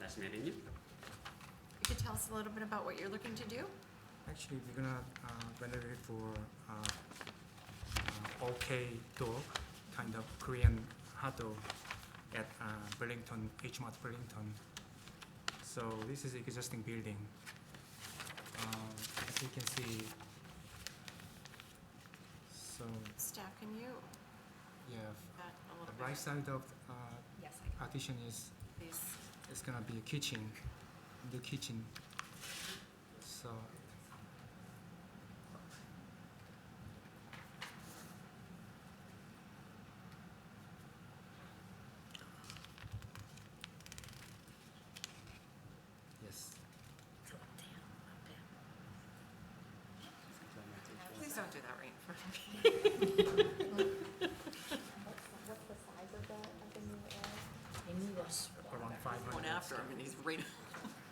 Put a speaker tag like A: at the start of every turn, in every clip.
A: fascinating.
B: You could tell us a little bit about what you're looking to do?
C: Actually, we're gonna uh, renovate for uh, uh, OK dog, kind of Korean hot dog at uh, Burlington, H Mart Burlington. So this is existing building. Um, As you can see, so,
B: Staff, can you
C: yeah,
B: add a
C: the
B: little
C: right
B: bit?
C: side of uh,
B: Yes,
C: partition is
B: please.
C: it's gonna be a kitchen, the kitchen. So. Yes.
B: Please don't do that right in front of me.
D: What's the size of the, of the new area?
C: Around five hundred.
B: Going after him, and he's right.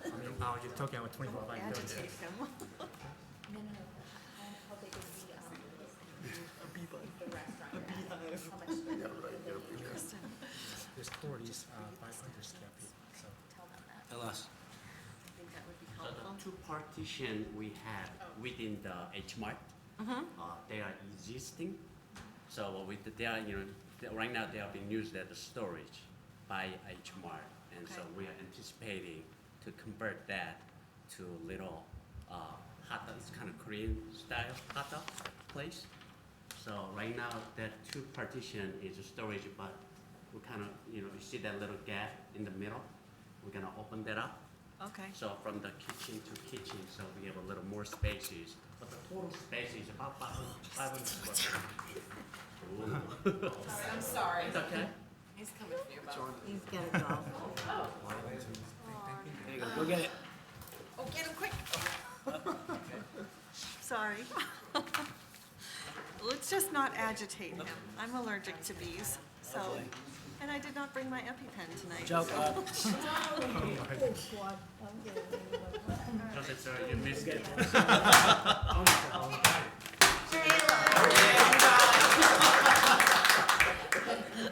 C: I mean, now you're talking about twenty-four by thirty.
B: Agitate him.
D: No, no, no. How, how big is the, um, is the restaurant? A beehive. How much?
B: Kristen,
C: This floor is uh, five hundred square feet, so.
D: Tell them that.
E: Tell us.
B: I think that would be
A: So
B: helpful. Oh.
A: the two partition we have within the H Mart,
B: Mhm.
A: uh, they are existing. So with, the- they are, you know, they- right now they are being used as a storage by H Mart. And so
B: Okay.
A: we are anticipating to convert that to little, uh, hot dog, it's kind of Korean style hot dog place. So right now, that two partition is a storage, but we kind of, you know, you see that little gap in the middle? We're gonna open that up
B: Okay.
A: so from the kitchen to kitchen, so we have a little more spaces, but the total space is about five hundred, five hundred square. feet. Ooh.
B: I'm sorry.
A: It's okay?
B: He's coming for you, Bob.
F: He's gotta go.
E: There you go, go get it.
B: Oh, get him quick. Sorry. Let's just not agitate him. I'm allergic to bees, so, and I did not bring my EpiPen tonight.
E: Joe, uh,
A: Joseph, sir, uh, you missed it.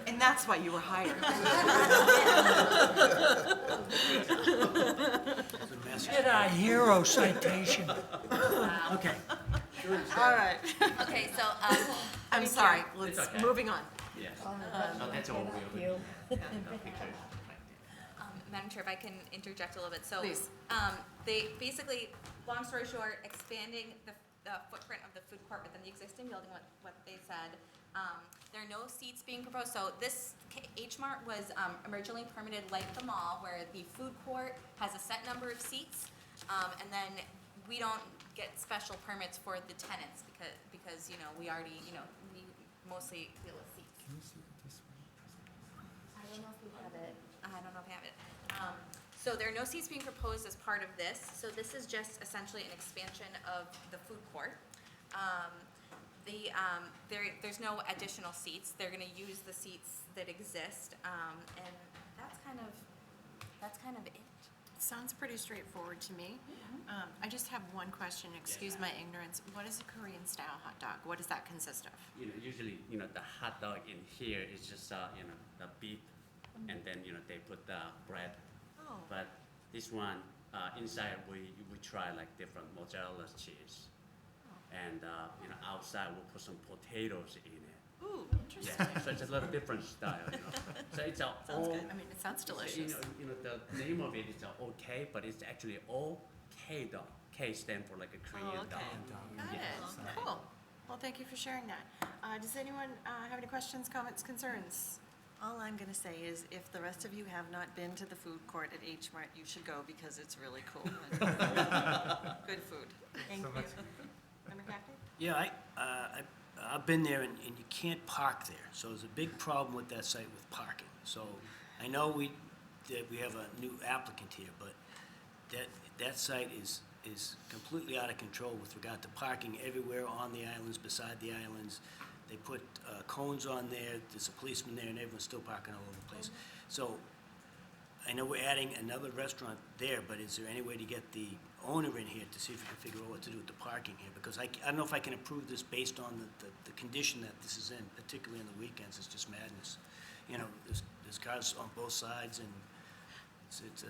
B: And that's why you were hired.
E: get a hero citation. Okay.
B: All right.
D: Okay, so, um,
B: I'm sorry, let's,
A: It's okay.
B: moving on.
A: Yes. So that's all we will.
D: um, Madam Chair, if I can interject a little bit, so.
B: Please.
D: Um, they, basically, long story short, expanding the, the footprint of the food court within the existing building, what, what they said. Um, there are no seats being proposed, so this K- H Mart was, um, originally permitted like the mall, where the food court has a set number of seats. Um, and then we don't get special permits for the tenants, because, because, you know, we already, you know, we mostly deal with seats.
C: Can you see it this way?
D: I don't know if we have it. I don't know if we have it. Um, So there are no seats being proposed as part of this, so this is just essentially an expansion of the food court. Um, The, um, there, there's no additional seats, they're gonna use the seats that exist, um, and that's kind of, that's kind of it.
B: Sounds pretty straightforward to me. Um, I just have one question, excuse my ignorance. What is a Korean-style hot dog? What does that consist of?
A: You know, usually, you know, the hot dog in here is just, uh, you know, the beef,
D: um,
A: and then, you know, they put the bread.
B: Oh,
A: But this one, uh, inside, we, we try like different mozzarella cheese. And, uh, you know, outside, we'll put some potatoes in it.
B: ooh, interesting.
A: Yeah, so it's a little different style, you know. So it's a
B: Sounds
A: O-
B: good.
F: Oh.
B: I mean, it sounds
A: it's a- You
B: delicious.
A: know, you know, the name of it is a OK, but it's actually O K dog. K stand for like a Korean
B: Oh, okay.
A: dog.
B: Got it, cool. Well, thank you for sharing that. Uh, does anyone, uh, have any questions, comments, concerns?
F: All I'm gonna say is, if the rest of you have not been to the food court at H Mart, you should go because it's really cool. Good food.
B: Thank you.
C: much.
B: Member Cackney?
E: Yeah, I, uh, I, I've been there and, and you can't park there, so there's a big problem with that site with parking. So I know we, that we have a new applicant here, but that, that site is, is completely out of control with regard to parking everywhere on the islands, beside the islands. They put uh, cones on there, there's a policeman there and everyone's still parking all over the place. So I know we're adding another restaurant there, but is there any way to get the owner in here to see if we can figure out what to do with the parking here? Because I, c- I don't know if I can approve this based on the, the, the condition that this is in, particularly on the weekends, it's just madness. You know, there's, there's cars on both sides and it's, it's a